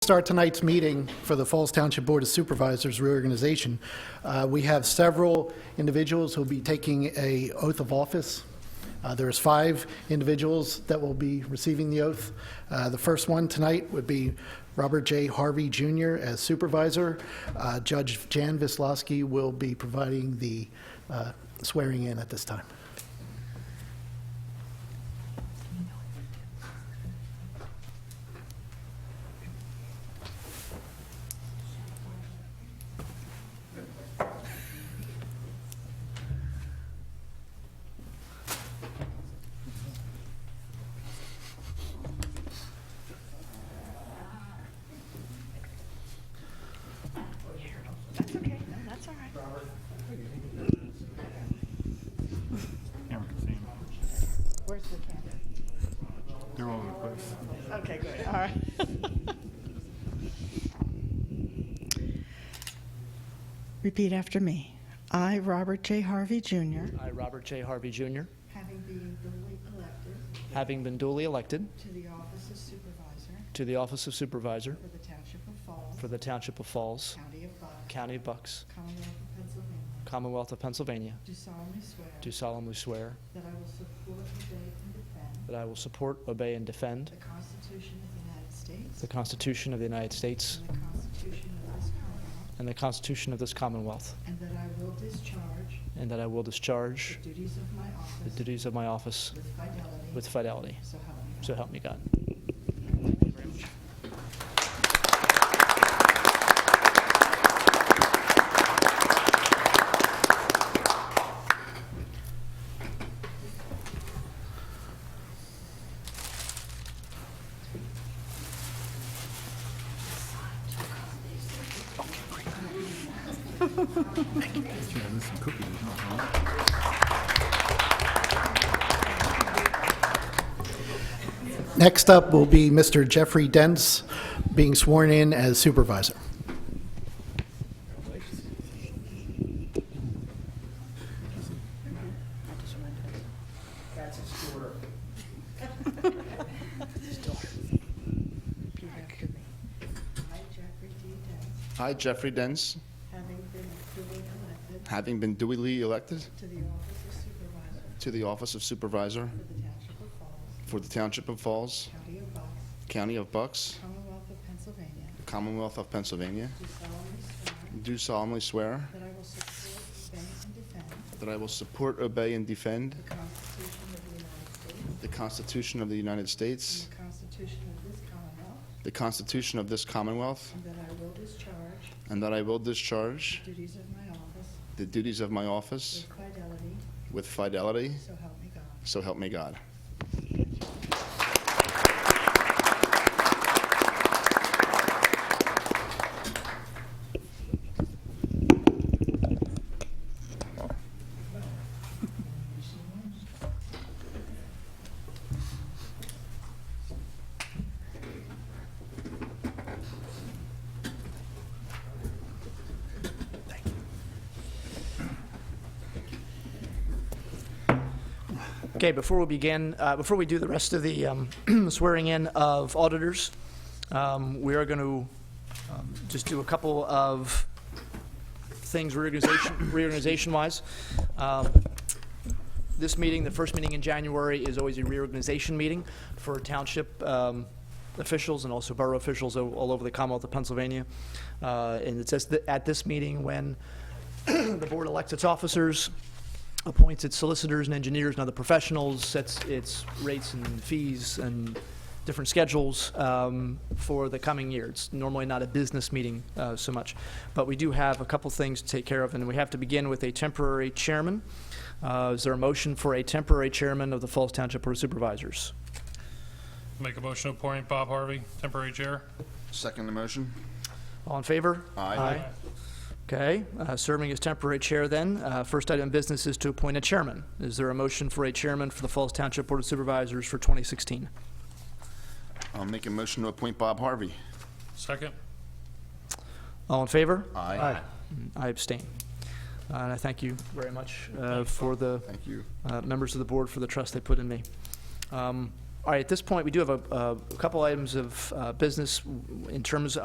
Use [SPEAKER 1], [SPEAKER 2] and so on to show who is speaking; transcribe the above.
[SPEAKER 1] start tonight's meeting for the Falls Township Board of Supervisors reorganization. Uh, We have several individuals who'll be taking a oath of office. Uh, There's five individuals that will be receiving the oath. Uh, The first one tonight would be Robert J. Harvey Jr. as supervisor. Uh, Judge Jan Vislowski will be providing the uh, swearing in at this time.
[SPEAKER 2] That's okay. No, that's all right.
[SPEAKER 3] Camera can see him.
[SPEAKER 2] Where's the camera?
[SPEAKER 3] They're all over the place.
[SPEAKER 2] Okay, good. All right. Repeat after me. I, Robert J. Harvey Jr.,
[SPEAKER 4] I, Robert J. Harvey Jr.,
[SPEAKER 2] having been duly elected
[SPEAKER 4] having been duly elected
[SPEAKER 2] to the office of supervisor
[SPEAKER 4] to the office of supervisor
[SPEAKER 2] for the Township of Falls,
[SPEAKER 4] for the Township of Falls,
[SPEAKER 2] County of Bucks,
[SPEAKER 4] County of Bucks,
[SPEAKER 2] Commonwealth of Pennsylvania,
[SPEAKER 4] Commonwealth of Pennsylvania,
[SPEAKER 2] do solemnly swear
[SPEAKER 4] do solemnly swear
[SPEAKER 2] that I will support, debate, and defend
[SPEAKER 4] that I will support, obey, and defend
[SPEAKER 2] the Constitution of the United States
[SPEAKER 4] the Constitution of the United States
[SPEAKER 2] and the Constitution of this Commonwealth,
[SPEAKER 4] and the
[SPEAKER 2] and that
[SPEAKER 4] Constitution of this Commonwealth,
[SPEAKER 2] I will discharge
[SPEAKER 4] and that I will discharge
[SPEAKER 2] The duties of my
[SPEAKER 4] the
[SPEAKER 2] office
[SPEAKER 4] duties of my office
[SPEAKER 2] with fidelity.
[SPEAKER 4] with fidelity.
[SPEAKER 2] So help me God.
[SPEAKER 4] So help me God.
[SPEAKER 3] Yeah, there's some cookies.
[SPEAKER 1] Next up will be Mr. Jeffrey Dents being sworn in as supervisor.
[SPEAKER 2] Repeat after me. I, Jeffrey D. Dent,
[SPEAKER 5] I, Jeffrey Dens,
[SPEAKER 2] having been duly elected
[SPEAKER 5] having been duly elected
[SPEAKER 2] to the office of supervisor
[SPEAKER 5] to the office of Supervisor
[SPEAKER 2] for the Township of Falls,
[SPEAKER 5] for the Township
[SPEAKER 2] County
[SPEAKER 5] of Falls,
[SPEAKER 2] of Bucks,
[SPEAKER 5] County of Bucks,
[SPEAKER 2] Commonwealth of Pennsylvania,
[SPEAKER 5] Commonwealth of Pennsylvania,
[SPEAKER 2] do solemnly swear
[SPEAKER 5] do solemnly swear
[SPEAKER 2] that I will support, defend, and defend
[SPEAKER 5] that I will support, obey, and defend
[SPEAKER 2] the Constitution of the United States
[SPEAKER 5] the Constitution of the United States,
[SPEAKER 2] and the Constitution of this Commonwealth,
[SPEAKER 5] the Constitution of this Commonwealth,
[SPEAKER 2] and that I will discharge
[SPEAKER 5] and that I will discharge
[SPEAKER 2] the duties of my office
[SPEAKER 5] the duties of my office
[SPEAKER 2] with fidelity.
[SPEAKER 5] with fidelity,
[SPEAKER 2] So help me God.
[SPEAKER 5] so help me God.
[SPEAKER 4] Okay, before we begin, uh, before we do the rest of the um, swearing in of auditors, um, we are going to just do a couple of things reorganization, reorganization-wise. Um, This meeting, the first meeting in January, is always a reorganization meeting for township um, officials and also borough officials o- all over the Commonwealth of Pennsylvania. Uh, And it's just that at this meeting when the board elects its officers, appoints its solicitors and engineers and other professionals, sets its rates and fees and different schedules um, for the coming year. It's normally not a business meeting uh, so much, but we do have a couple things to take care of, and we have to begin with a temporary chairman. Uh, Is there a motion for a temporary chairman of the Falls Township Board of Supervisors?
[SPEAKER 6] Make a motion to appoint Bob Harvey, temporary chair.
[SPEAKER 5] Second the motion.
[SPEAKER 4] All in favor?
[SPEAKER 5] Aye.
[SPEAKER 4] Okay, uh, serving as temporary chair then. Uh, First item of business is to appoint a chairman. Is there a motion for a chairman for the Falls Township Board of Supervisors for 2016?
[SPEAKER 5] I'll make a motion to appoint Bob Harvey.
[SPEAKER 6] Second.
[SPEAKER 4] All in favor?
[SPEAKER 5] Aye.
[SPEAKER 4] I abstain. Uh, And I thank you very much uh, for the
[SPEAKER 5] Thank you.
[SPEAKER 4] uh, members of the board for the trust they put in me. Um, All right, at this point, we do have a- a couple items of uh, business in terms